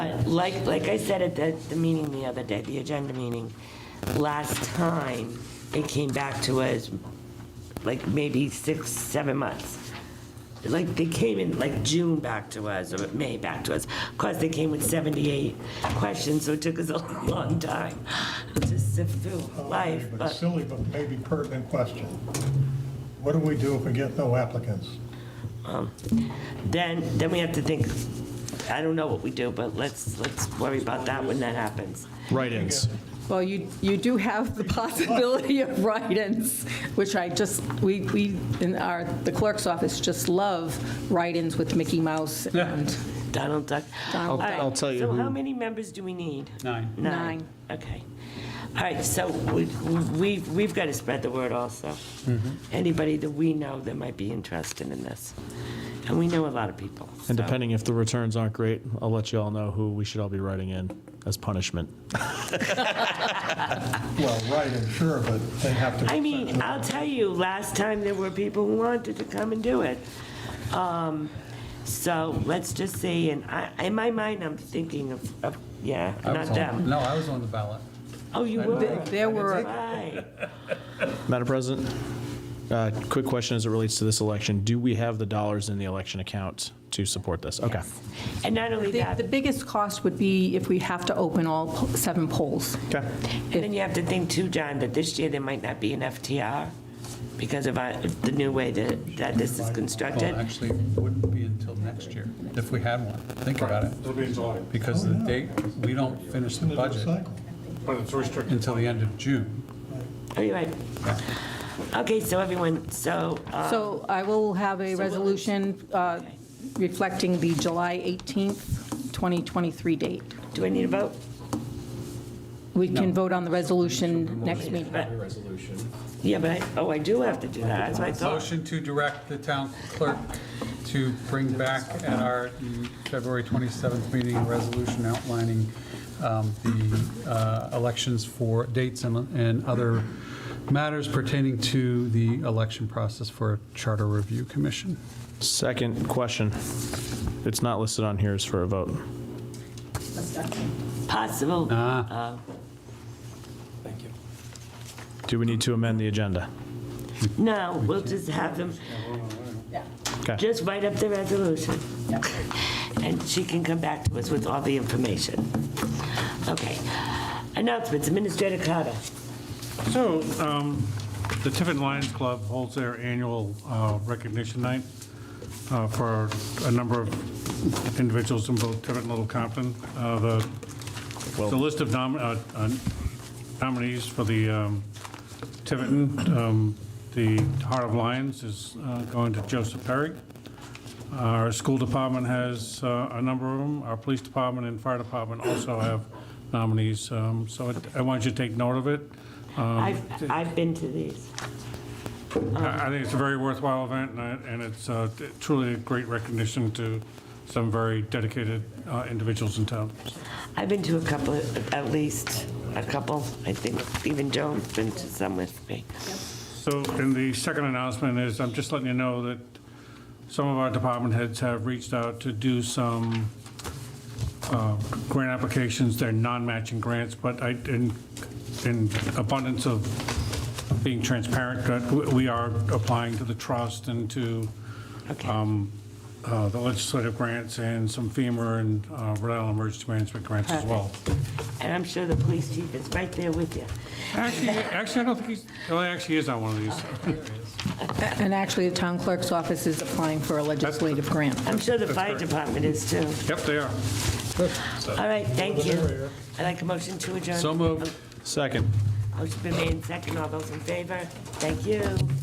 Like, like I said at the, the meeting the other day, the agenda meeting, last time, it came back to us, like, maybe six, seven months. Like, they came in, like, June back to us, or May back to us. Of course, they came with 78 questions, so it took us a long time to sift through life, But but. Silly, but maybe pertinent question. What do we do if we get no applicants? then, then we have to think, I don't know what we do, but let's, let's worry about that when that happens. Write-ins. Well, you, you do have the possibility of write-ins, which I just, we, we, in our, the clerk's office just love write-ins with Mickey Mouse and Donald Duck. Donald All right, Duck. I'll tell you So who- how many members do we need? Nine. Nine, Nine. okay. All right, so we, we- we've got to spread the word also. Mm-hmm. Anybody that we know that might be interested in this. And we know a lot of people. And so- depending if the returns aren't great, I'll let you all know who we should all be writing in as punishment. Well, right, and sure, but they have to. I mean, I'll tell you, last time there were people who wanted to come and do it. Um, So let's just see, and I, in my mind, I'm thinking of, of, yeah, I not was on- them. No, I was on the ballot. Oh, you were? there were, Right. Madam President, uh, quick question as it relates to this election. Do we have the dollars in the election account to support this? Okay. And not only the that, the and biggest cost would be if we have to open all po- seven polls. Okay. then you have to think too, John, that this year there might not be an FTR because of uh, the new way that, that this is constructed. Well, actually, it wouldn't be until next year, if we had one. Think about it. It'll be in July, Because the date, we don't finish the budget Cycle. but it's restricted. until the end of June. Are you right? Okay, so everyone, so, uh, Ah. So I will have a resolution uh, reflecting the July 18th, 2023 date. do I need a vote? We can vote on the resolution next meeting. Yeah, but, I- oh, I do have to do that, that's what I thought. Motion to direct the town clerk to bring back at our February 27th meeting a resolution outlining um, the uh, elections for dates and and other matters pertaining to the election process for Charter Review Commission. Second question. It's not listed on here as for a vote. Possible. Ah. uh, Do we need to amend the agenda? No, we'll just have them, Okay. just write up the resolution. And she can come back to us with all the information. Okay. Announcements, Administrator Carter. So, um, the Tiffin Lions Club holds their annual uh, recognition night uh, for a number of individuals in both Tiffin and Little Compton. Uh, The the list of nom- uh, uh, nominees for the um, Tiverton, um, the Heart of Lions is uh, going to Joseph Perry. Our school department has uh, a number of them. Our police department and fire department also have nominees. Um, So I- I want you to take note of it. I've, I've been to these. Uh, I I think it's a very worthwhile event, and I- and it's uh, truly a great recognition to some very dedicated uh, individuals in town. I've been to a couple, at least a couple, I think even Joan's been to some with me. So, and the second announcement is, I'm just letting you know that some of our department heads have reached out to do some uh, grant applications, they're non-matching grants, but I, in, in abundance of being transparent, that w- we are applying to the trust and to Okay. um, uh, the legislative grants and some FEMA and uh, Rhode Island Emergency Management grants as well. And I'm sure the police chief is right there with you. Actually, actually, I don't think he's, well, he actually is on one of these. And actually, the town clerk's office is applying for a legislative grant. I'm sure the fire department is too. Yep, they are. All right, thank you. I'd like a motion to adjourn. So moved. Second. Motion been made, second, all those in favor? Thank you.